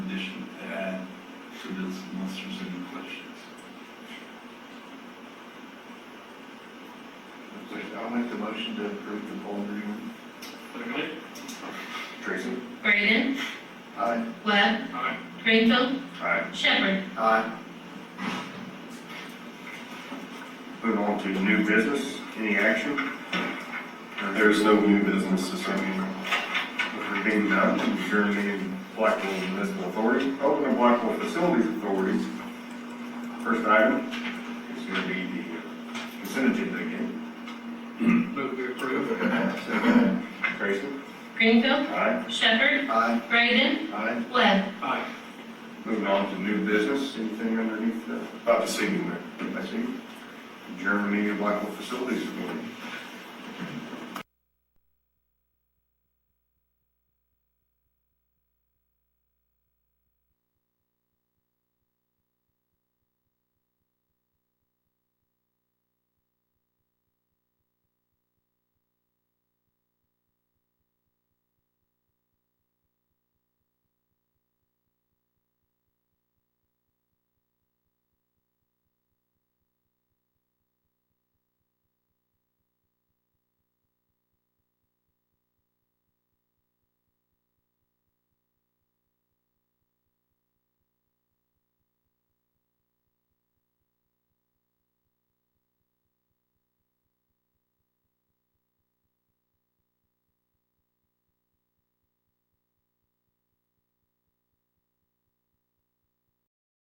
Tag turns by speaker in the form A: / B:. A: I'll make the motion to approve the full agreement.
B: Second.
A: Tracy?
C: Braden,
A: Aye.
C: Webb,
B: Aye.
C: Greenfield,
A: Aye.
C: Shepherd.
A: Aye. Moving on to new business, any action?
D: There's no new business this evening.
A: If there being none, adjourn the meeting of Blackville Municipal Authority, open the Blackville Facilities Authority. First item is going to be the consent agenda again.
B: Move to approve.
A: Tracy?
C: Greenfield,
A: Aye.
C: Shepherd,
A: Aye.
C: Braden,
A: Aye.
C: Webb.
B: Aye.
A: Moving on to new business, anything underneath the
D: Not this evening, Mayor.
A: I see. Germany Blackville Facilities Authority.